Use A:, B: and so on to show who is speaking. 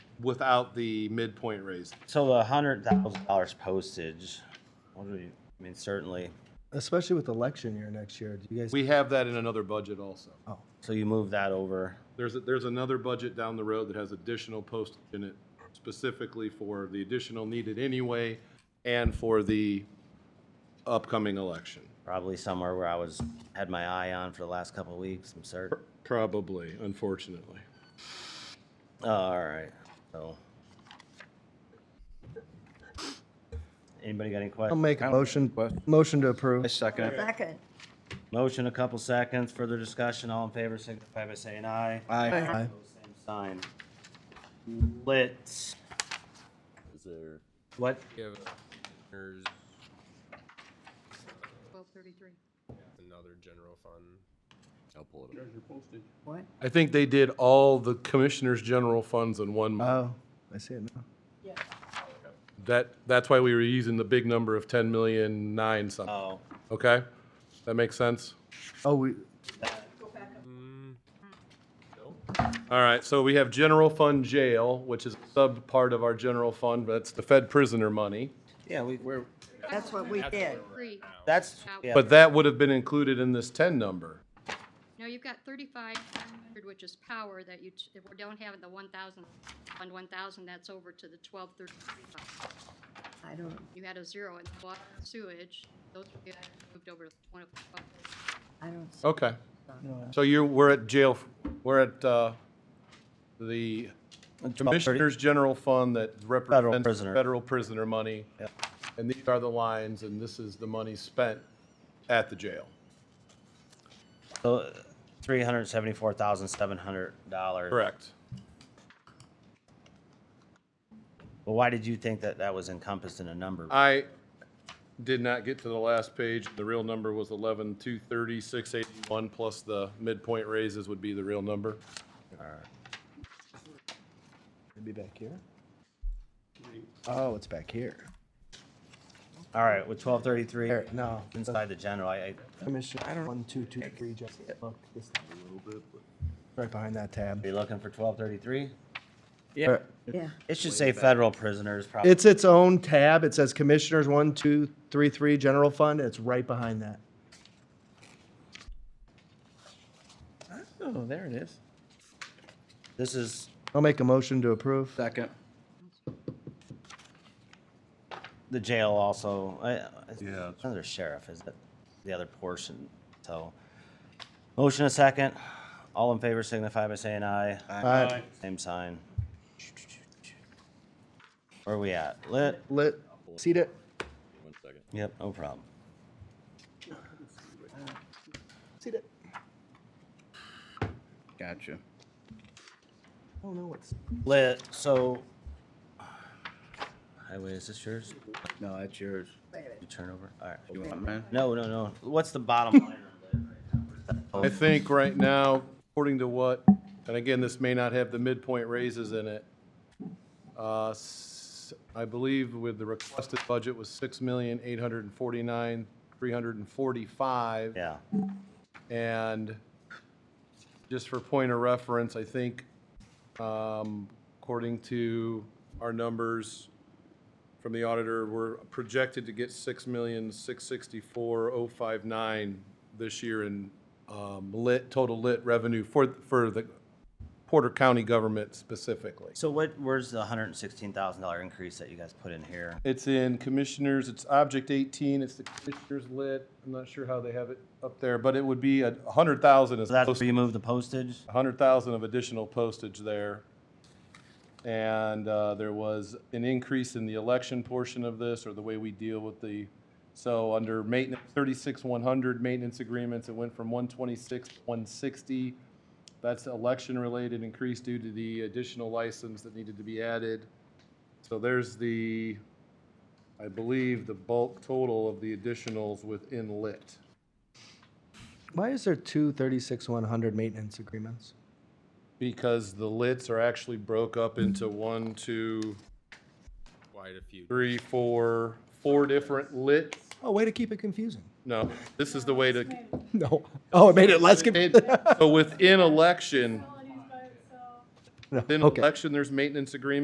A: without the midpoint raise.
B: So the hundred thousand dollars postage, what do you, I mean, certainly,
C: Especially with election year next year, do you guys?
A: We have that in another budget also.
B: so you move that over.
A: There's, a- there's another budget down the road that has additional postage in it specifically for the additional needed anyway and for the upcoming election.
B: Probably somewhere where I was, had my eye on for the last couple of weeks, I'm certain.
A: Probably, unfortunately.
B: Oh, All right, so. Anybody got any
C: I'll
B: questions?
C: make a motion, motion to approve.
D: second it.
E: Second.
B: Motion, a couple seconds, further discussion, all in favor, signify by saying aye.
D: Aye.
C: Aye.
B: Opposed, Same sign. Lit. Is there? What?
F: Give there's
E: Twelve thirty-three.
F: another general fund.
E: What?
A: I think they did all the commissioners' general funds in one month.
C: Oh, I see it now.
A: That, that's why we were using the big number of ten million nine something,
B: Oh,
A: okay? That makes sense?
C: Oh, we,
A: All right, so we have general fund jail, which is a sub part of our general fund, but it's the Fed prisoner money.
B: yeah, we, we're,
E: That's what we did.
G: Three.
B: that's, yeah.
A: But that would have been included in this ten number.
G: No, you've got thirty-five hundred, which is power that you, t- if we don't have the one thousand, fund one thousand, that's over to the twelve thirty-three.
E: I don't,
G: You had a zero in water and sewage, those were the items moved over to one of.
E: I don't see
A: Okay. So you're, we're at jail, we're at, uh, the Commissioners General Fund that represents
B: prisoner.
A: federal prisoner money.
B: Yep.
A: And these are the lines, and this is the money spent at the jail.
B: So three hundred seventy-four thousand seven hundred dollars.
A: Correct.
B: Well, why did you think that that was encompassed in a number?
A: I did not get to the last page. The real number was eleven, two thirty, six eighty-one, plus the midpoint raises would be the real number.
C: it'd be back here? Oh, it's back here.
B: All right, with twelve thirty-three
C: There, no.
B: inside the general, I, I,
C: Commissioner, I don't. One, two, two, three, just look. just a little bit. Right behind that tab.
B: be looking for twelve thirty-three?
C: Yeah.
E: yeah.
B: It should say federal prisoners, probably.
C: It's its own tab. It says Commissioners, one, two, three, three, General Fund. It's right behind that.
D: Oh, there it is.
B: This is,
C: I'll make a motion to approve.
D: Second.
B: the jail also, I,
A: Yeah,
B: it's
A: it's-
B: another sheriff, is it? The other portion, so. Motion a second. All in favor signify by saying aye.
C: Aye.
B: Same sign. Where are we at? Lit?
C: Lit, seat it.
B: Yep, no problem.
C: Seat it.
D: Gotcha.
C: Oh, no, it's.
B: Lit, so. Highway, is this yours?
D: No, that's yours.
B: You turn over? All right.
D: You want mine?
B: No, no, no. What's the bottom line? on lit right now?
A: I think right now, according to what, and again, this may not have the midpoint raises in it. uh, s- I believe with the requested budget was six million, eight hundred and forty-nine, three hundred and forty-five.
B: Yeah,
A: And just for point of reference, I think, um, according to our numbers from the auditor, we're projected to get six million, six sixty-four, oh five nine this year in, um, lit, total lit revenue for, for the Porter County government specifically.
B: so what, where's the hundred and sixteen thousand dollar increase that you guys put in here?
A: It's in commissioners, it's object eighteen, it's the commissioners lit, I'm not sure how they have it up there, but it would be a hundred thousand is.
B: So that's
A: close
B: where you move the postage?
A: 100,000 of additional postage there. And uh, there was an increase in the election portion of this, or the way we deal with the, so under maintenance, 36,100 maintenance agreements, it went from 126 to 160. That's election-related increase due to the additional license that needed to be added. So there's the, I believe, the bulk total of the additionals within lit.
C: Why is there two thirty-six one hundred maintenance agreements?
A: Because the lits are actually broke up into one, two,
F: Quite a few.
A: three, four, four different lits.
C: Oh, way to keep it confusing.
A: No, this is the way to.
C: No. Oh, it made it less confusing.
A: So within election,
C: No,
A: within
C: okay.
A: election, there's maintenance agreements.